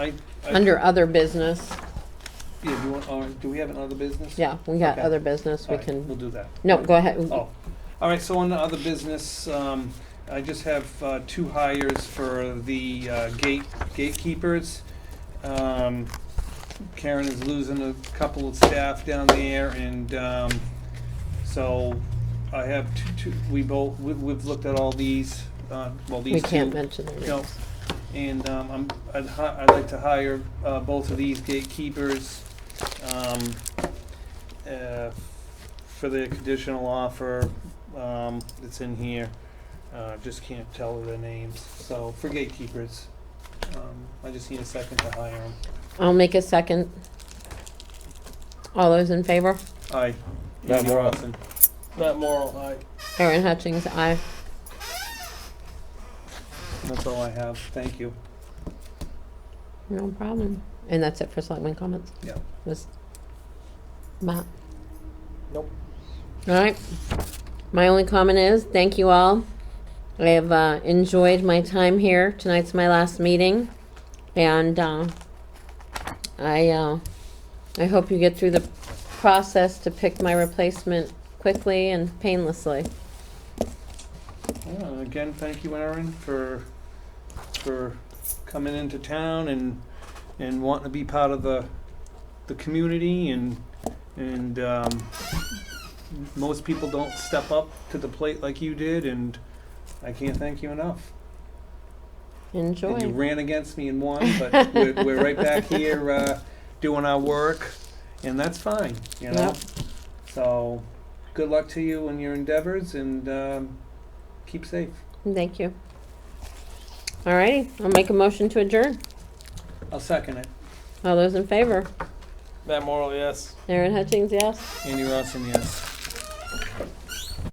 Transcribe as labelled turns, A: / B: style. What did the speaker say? A: I, I-
B: Under other business,
A: yeah, do you want, uh, do we have another business?
B: yeah, we got
A: Okay.
B: other business, we
A: All right, We'll
B: can,
A: do that.
B: no, go ahead.
A: Oh, all right, so on the other business, um, I just have, uh, two hires for the, uh, gate, gatekeepers. Um, Karen is losing a couple of staff down there and, um, so I have two, two, we both, we, we've looked at all these, uh, well, these
B: We
A: two.
B: can't mention their
A: No.
B: names.
A: And um, I'm, I'd, hi- I'd like to hire uh, both of these gatekeepers um, uh, for the conditional offer um, that's in here. Uh, Just can't tell their names, so for gatekeepers. um, I just need a second to hire them.
B: I'll make a second. All those in favor?
A: Aye.
C: Matt
A: Andy
C: Morrow.
A: Rossen. Matt Morrow, aye.
B: Erin Hutchings, aye.
A: That's all I have, thank you.
B: No problem. And that's it for selectmen comments?
A: Yeah.
B: Was Matt?
A: Nope.
B: All right. My only comment is, thank you all. I have uh, enjoyed my time here. Tonight's my last meeting. And uh, I, uh, I hope you get through the process to pick my replacement quickly and painlessly.
A: Yeah, and again, thank you, Aaron, for, for coming into town and, and wanting to be part of the, the community and, and, um, most people don't step up to the plate like you did, and I can't thank you enough. And you
B: Enjoy.
A: ran against me and won, but we're, we're right back here, uh, doing our work, and that's fine, you know?
B: Yep.
A: So, good luck to you in your endeavors, and, um, keep safe.
B: Thank you. All righty, I'll make a motion to adjourn.
A: I'll second it.
B: All those in favor?
C: Matt Morrell, yes.
B: Erin Hutchings, yes.
A: Andy Ross, and yes.